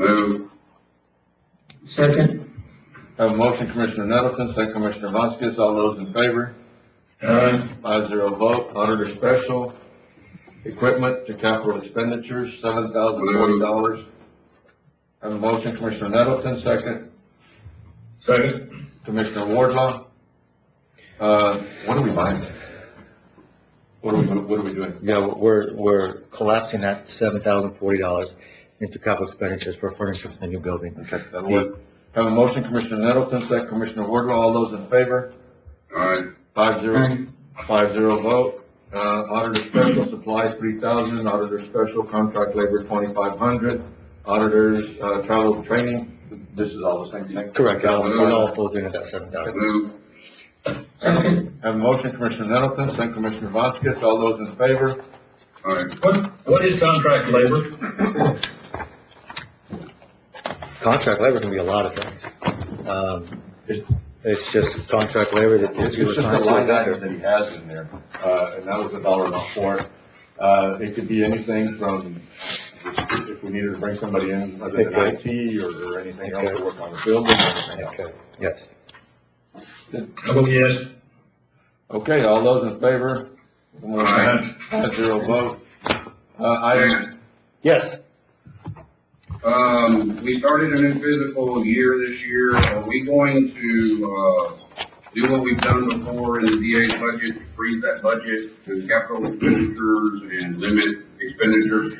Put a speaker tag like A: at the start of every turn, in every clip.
A: Move.
B: Second?
C: Have a motion, Commissioner Nettleton, second Commissioner Vasquez, all those in favor?
A: Aye.
C: Five zero vote, auditor special, equipment to capital expenditures, seven thousand forty dollars. Have a motion, Commissioner Nettleton, second
A: Second.
C: Commissioner Wardlaw. Uh, what are we buying? What are we, what are we doing?
D: Yeah, we're, we're collapsing that seven thousand forty dollars into capital expenditures for furniture for the new building.
C: Okay, that'll work. Have a motion, Commissioner Nettleton, second Commissioner Wardlaw, all those in favor?
A: Aye.
C: Five zero,
B: Aye.
C: five zero vote. Uh, auditor special supplies three thousand, auditor special contract labor twenty-five hundred, auditors, uh, travel training, this is all the same thing?
D: Correct, it all, it all
C: $7,500.
D: falls into that seven thousand.
A: Move.
B: Second?
C: Have a motion, Commissioner Nettleton, second Commissioner Vasquez, all those in favor?
A: Aye. What, what is contract labor?
D: Contract labor can be a lot of things. Um, it- it's just contract labor that
C: It's
D: you
C: just a
D: assign to a
C: line item
D: vendor.
C: that he has in there, uh, and that was a dollar amount for it. Uh, it could be anything from, if we needed to bring somebody in, other than
D: Okay.
C: IT or, or anything else to
D: Okay.
C: work on the building or anything else.
D: Okay, yes.
A: I vote yes.
C: Okay, all those in favor?
A: Aye.
C: Five zero vote. Uh, item,
D: Yes,
E: Um, we started a new physical year this year. Are we going to, uh, do what we've done before in the DA's budget, freeze that budget to capital expenditures and limit expenditures?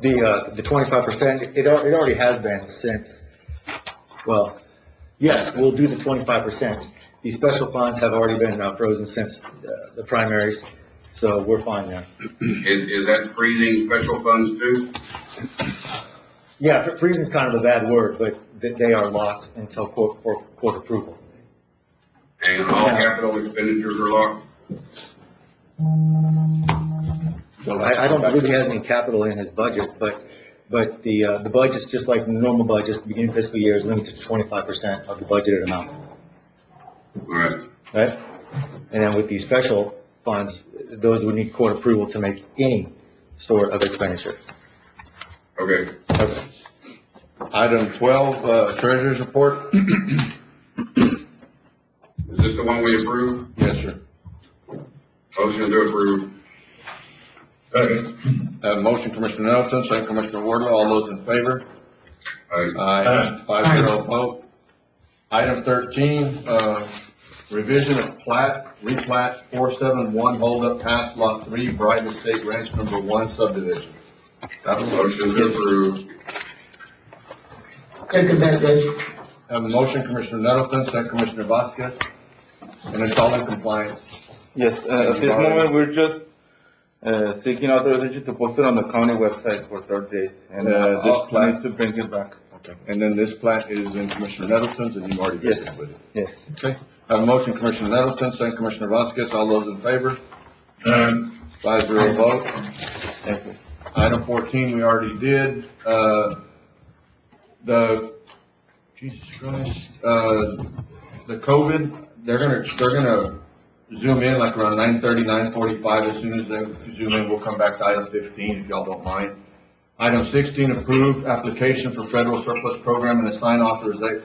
D: the, uh, the twenty-five percent, it, al- it already has been since, well, yes, we'll do the twenty-five percent. These special funds have already been uh, frozen since uh, the primaries, so we're fine there.
E: Is, is that freezing special funds too?
D: Yeah, fr- freezing's kind of a bad word, but th- they are locked until court, for court approval.
E: And all capital expenditures are locked?
C: so
D: I, I don't believe he has any capital in his budget, but, but the, uh, the budget's just like normal budgets, the beginning of fiscal year is limited to twenty-five percent of the budgeted amount,
E: Alright,
D: right? And then with these special funds, those would need court approval to make any sort of expenditure.
E: okay.
D: Okay.
C: item twelve, uh, treasurer's report?
E: Is this the one we approve?
C: Yes, sir.
E: Motion to approve.
A: Second.
C: Uh, motion, Commissioner Nettleton, second Commissioner Wardlaw, all those in favor?
E: Aye.
C: Aye, five zero vote. Item thirteen, uh, revision of plat, replat four seven one, hold up pass lot three, Brighton Estate Ranch number one subdivision. Have a motion.
E: Motion to approve.
B: Second that, Dave.
C: Have a motion, Commissioner Nettleton, second Commissioner Vasquez, and it's all in compliance.
F: Yes, uh, at this moment, we're just uh, seeking authorization to post it on the county website for third days. And
C: Uh,
F: uh,
C: this
F: I'll
C: plan-
F: need to bring it back.
C: Okay. And then this plat is in Commissioner Nettleton's, and you've already
F: Yes,
C: visited with it.
F: yes.
C: Okay. Have a motion, Commissioner Nettleton, second Commissioner Vasquez, all those in favor?
A: Aye.
C: Five zero vote. Item fourteen, we already did, uh, the, Jesus Christ, uh, the COVID, they're gonna, they're gonna zoom in like around nine thirty, nine forty-five, as soon as they zoom in, we'll come back to item fifteen, if y'all don't mind. Item sixteen, approve application for federal surplus program and assign authorization,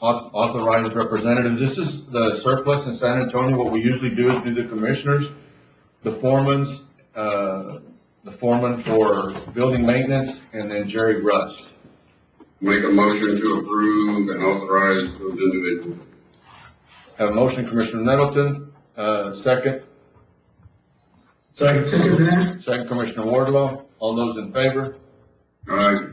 C: authorized representative. This is the surplus in San Antonio, what we usually do is do the commissioners, the foreman's, uh, the foreman for building maintenance, and then Jerry Rust.
E: Make a motion to approve and authorize those individuals.
C: Have a motion, Commissioner Nettleton, uh, second,
A: Second.
B: Second that?
C: second Commissioner Wardlaw, all those in favor?
E: Aye.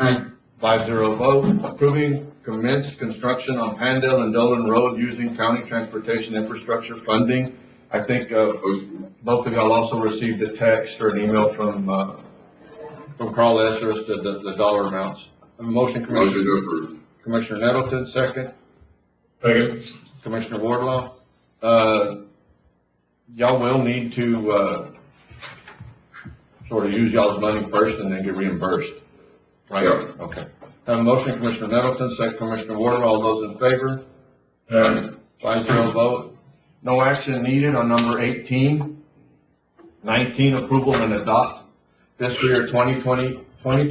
B: Aye.
C: Five zero vote, approving commence construction on Pandale and Dolan Road using county transportation infrastructure funding. I think, uh,
E: Motion.
C: both of y'all also received a text or an email from, uh, from Carl Esser's, the, the, the dollar amounts. Have a motion,
E: Motion
C: Commissioner,
E: to approve.
C: Commissioner Nettleton, second.
A: Second.
C: Commissioner Wardlaw, uh, y'all will need to, uh, sort of use y'all's money first and then get reimbursed, right?
E: Yeah.
C: Okay. Have a motion, Commissioner Nettleton, second Commissioner Wardlaw, all those in favor?
A: Aye.
C: Five zero vote. No action needed on number eighteen. Nineteen, approval and adopt fiscal year twenty twenty Twenty